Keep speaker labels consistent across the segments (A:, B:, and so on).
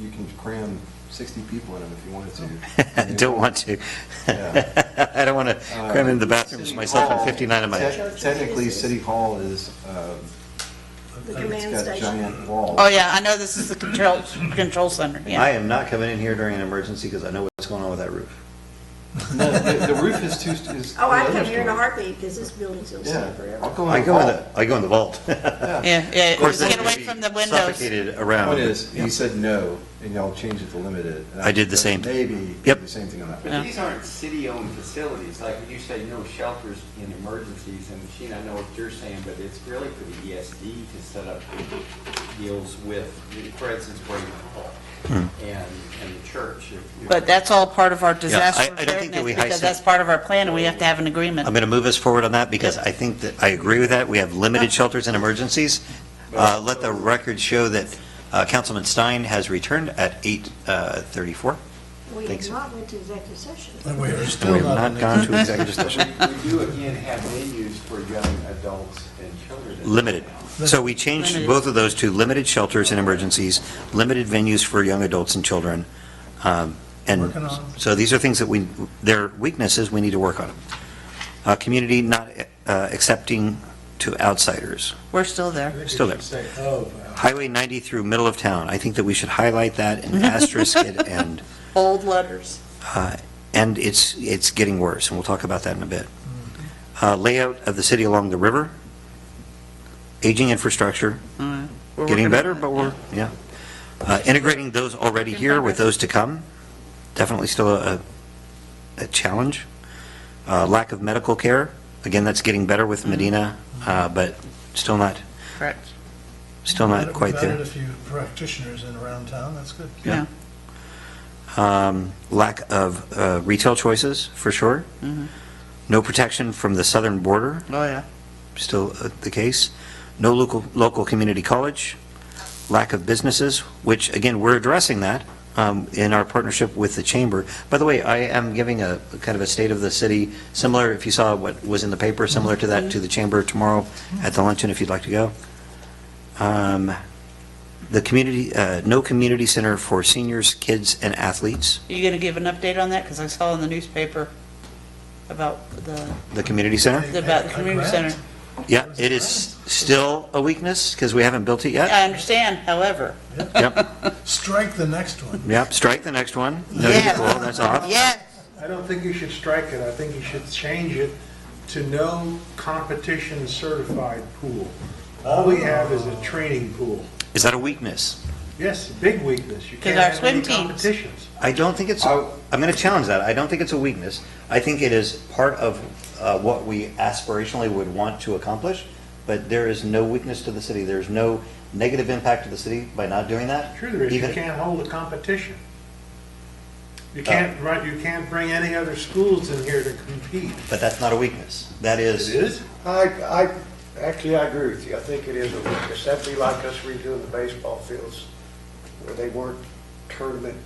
A: you can cram 60 people in them if you wanted
B: I
A: to.
B: don't want to.
A: Yeah.
B: I don't want to cram into Uh, the bathrooms
A: Uh, City
B: myself and
A: Hall-
B: 59 of my,
A: te- Technically, City Hall is, um,
C: The command
A: Oh, it's got
C: station.
A: giant walls.
D: Oh, yeah, I know this is the control, control center,
B: I
D: yeah.
B: am not coming in here during an emergency because I know what's going on with that roof.
A: No, The the roof is too, is.
C: Oh, I'd
A: the
C: come
A: other
C: here in a
A: story.
C: heartbeat, because this building's gonna
A: Yeah,
C: stay
A: I'll
C: forever.
A: go in.
B: I
A: the
B: go in
A: hall.
B: the, I go in the vault.
D: Yeah, yeah,
B: Of Oh, course,
D: Uh, get
B: then you'd
D: away
B: be
D: from the windows.
B: Suffocated around.
A: Point is, he said no, and y'all changed it to limited. and
B: I did the same.
A: Maybe,
B: Yep.
A: the same thing on that.
D: Yeah.
E: But these aren't city-owned facilities, like you say, no shelters in emergencies, and Sheena, I know what you're saying, but it's really for the ESD to set up deals with, for instance, Bremen Hall and, and the church. if-
D: But that's all part of our
B: I- I
D: disaster
B: don't think that we
D: preparedness,
B: high
D: because
B: set-
D: that's part of our plan, and we have to have an agreement.
B: I'm going to move us forward on that because I think that, I agree with that. We have limited shelters and emergencies. Uh, Let the record show that uh, Councilman Stein has returned at uh, 8:34.
C: We
B: Thanks.
C: did not went to executive session.
F: And we are still
B: We have
F: not
B: not
F: in
B: gone
F: the...
B: to executive session.
E: We do again have menus for young adults and children.
B: Limited. So we changed
D: Limited.
B: both of those to limited shelters and emergencies, limited venues for young adults and children. Um, And
F: Working on.
B: so these are things that we, they're weaknesses, we need to work on them. Uh, Community not uh, accepting to outsiders.
D: We're still there.
B: Still there.
F: Say, oh, wow.
B: Highway 90 through middle of town, I think that we should highlight that and asterisk it and,
D: Bold letters.
B: uh, and it's, it's getting worse, and we'll talk about that in a bit. Uh, Layout of the city along the river, aging infrastructure,
D: We're working
B: getting
D: on
B: better,
D: it,
B: but
D: yeah.
B: we're, yeah. Uh, Integrating those already
D: In
B: here with those
D: progress.
B: to come, definitely still a, a challenge. Uh, Lack of medical care, again, that's getting better
D: Mm-hmm.
B: with Medina, uh, but still not,
D: Correct,
B: still not
F: We've
B: quite
F: added a
B: there.
F: few practitioners in around town, that's good.
D: yeah.
B: Um, Lack of uh, retail choices, for sure.
D: Mm-hmm.
B: No protection from the southern border,
D: Oh, yeah.
B: still uh, the case. No local, local community college, lack of businesses, which, again, we're addressing that um, in our partnership with the chamber. By the way, I am giving a, kind of a state of the city, similar, if you saw what was in the paper, similar to that, to the chamber tomorrow at the luncheon, if you'd like to go. Um, The community, uh, no community center for seniors, kids, and athletes,
D: You going to give an update on that? Because I saw in the newspaper about the,
B: the community center.
D: about the community center.
B: Yeah, it is still a weakness, because we haven't built it yet.
D: I understand, however.
B: Yep.
F: Strike the next one.
B: Yep, strike the next one. No
D: Yeah.
B: equal, that's off.
D: Yeah,
G: I don't think you should strike it, I think you should change it to no competition certified pool. All we have is a training pool.
B: Is that a weakness?
G: Yes, big weakness, you
D: 'Cause
G: can't
D: our
G: have any
D: swim teams-
G: competitions.
B: I don't think it's,
D: Oh.
A: I-
B: I'm going to challenge that. I don't think it's a weakness. I think it is part of uh, what we aspirationally would want to accomplish, but there is no weakness to the city. There's no negative impact to the city by not doing that.
G: Sure there is, you
B: Even- Uh.
G: can't hold a competition. You can't, run- you can't bring any other schools in here to compete.
B: But that's not a weakness. That
G: It
B: is,
G: is?
H: I, I, actually, I agree with you. I think it is a weakness. That'd be like us redoing the baseball fields where they weren't tournament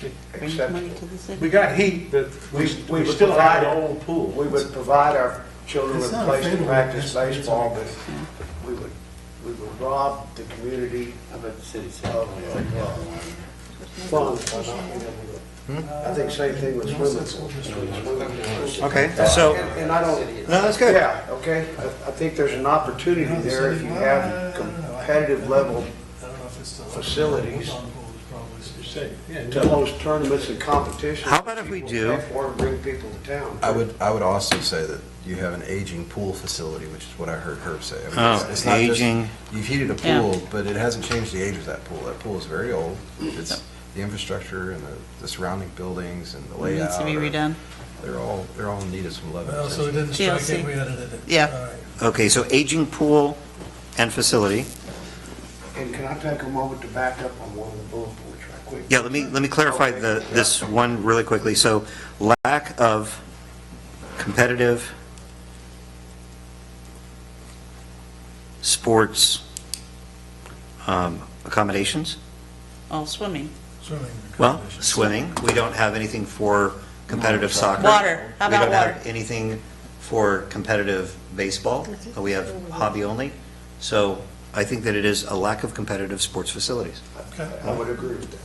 D: Bring money
H: acceptable.
D: to the city.
G: We got heat, but we,
H: We- we
G: we still had
H: provided-
G: an old pool.
H: We would provide our children
F: It's
H: with a
F: not
H: place to
F: available.
H: practice
F: It's- it's
H: baseball,
F: okay.
H: but we would, we would rob the community
E: How about the city center?
H: of, of, uh, funds by not being able to. I think same thing
F: Mm-hmm.
H: with swimming pools. Swimming
B: okay,
H: pools.
B: so,
H: And and I don't,
B: no, that's good.
H: Yeah, okay, I I think there's an opportunity
F: No, the
H: there if
F: city-
H: you
F: I
H: have
F: don't know. I-
H: competitive level
F: I don't know if it's still...
H: facilities.
F: Hold on, hold on, probably still-
H: to host tournaments and competitions.
B: How about if we do-
H: Or bring people to town.
A: I would, I would also say that you have an aging pool facility, which is what I heard Herb say. I mean,
B: Oh,
A: it's- it's not just-
B: aging.
A: You've heated a
D: Yeah.
A: pool, but it hasn't changed the age of that pool. That pool is very old.
D: Mm-hmm.
A: It's, the infrastructure and the- the surrounding buildings and the
D: It
A: layout.
D: Needs to be
A: are-
D: redone.
A: They're all, they're all in need of some love. and
F: Well, so we
A: attention.
F: didn't strike
D: TLC.
F: it, we edited it.
D: Yeah.
F: All right.
B: Okay, so aging pool and facility.
H: And can I take a moment to back up on one of the bullet points right quick?
B: Yeah, let me, let me clarify the, this one really quickly. So lack of competitive sports um, accommodations,
D: Oh, swimming.
F: Swimming.
B: well,
F: competitions.
B: swimming. We don't have anything for competitive soccer.
D: Water. How about
B: We don't have
D: water?
B: anything for competitive baseball. We have hobby only. So I think that it is a lack of competitive sports facilities.
F: Okay.
H: I would agree with that.